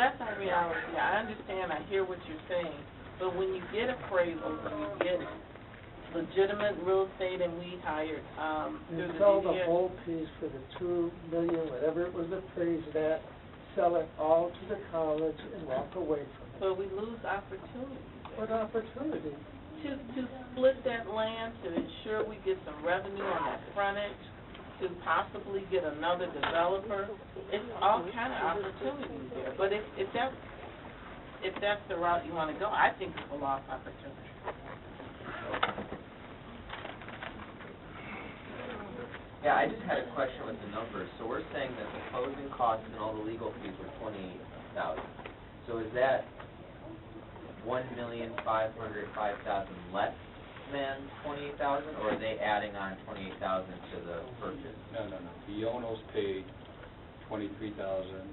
That's not reality. I understand, I hear what you're saying, but when you get appraisals, when you get legitimate real estate and we hired, um, And through the sell the DDA. whole piece for the two million, whatever it was appraised at, sell it all to the college and walk away from it. But we lose opportunities. What opportunity? To, to split that land, to ensure we get some revenue on that frontage, to possibly get another developer. It's all kind of opportunities there, but if, if that's, if that's the route you want to go, I think it's a lost opportunity. Yeah, I just had a question with the numbers. So we're saying that the closing costs and all the legal fees were twenty-eight thousand. So is that one million five hundred five thousand less than twenty-eight thousand, or are they adding on twenty-eight thousand to the purchase? No, no, no. The Yonos paid twenty-three thousand,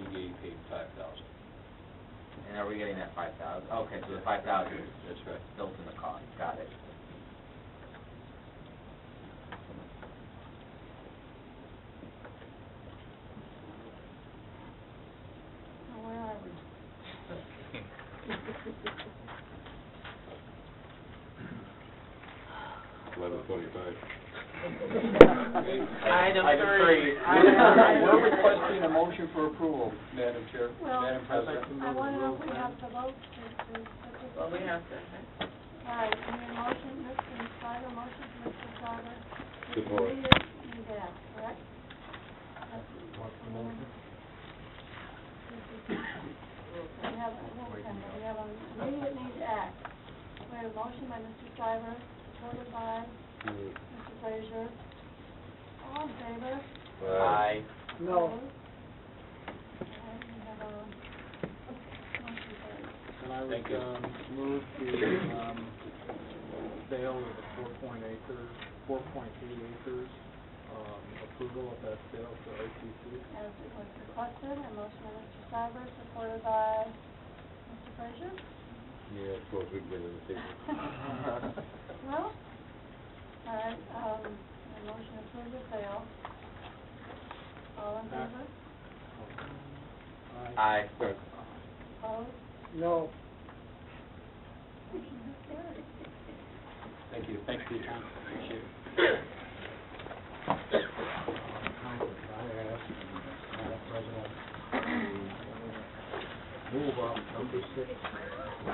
the DDA paid five thousand. And are we getting that five thousand? Okay, so the five thousand is That's right. built in the cost, got it. Eleven twenty-five. Item three. We're we're requesting a motion for approval, Madam Chair, Madam President. I want to know if we have the vote to, to. Well, we have to, All right, and your motion, Mr. Schreiber, motion, Mr. Schreiber. Support. You need that, correct? We have, we have an immediate need to act. We have a motion by Mr. Schreiber, supported by Mr. Frazier. All in favor? Aye. No, All right, we have a motion carried. And I Thank would, you. um, move to, um, sale of the four point acres, four point eight acres, um, approval of that sale to OTC. As it was requested, a motion by Mr. Cybers, supported by Mr. Frazier. Yeah, I suppose we can get it the table. Well, all right, um, a motion approved the sale. All in favor? Aye. Opposed? no. Motion is carried. Thank you. Thanks for your time. Appreciate it. uh, President, move number six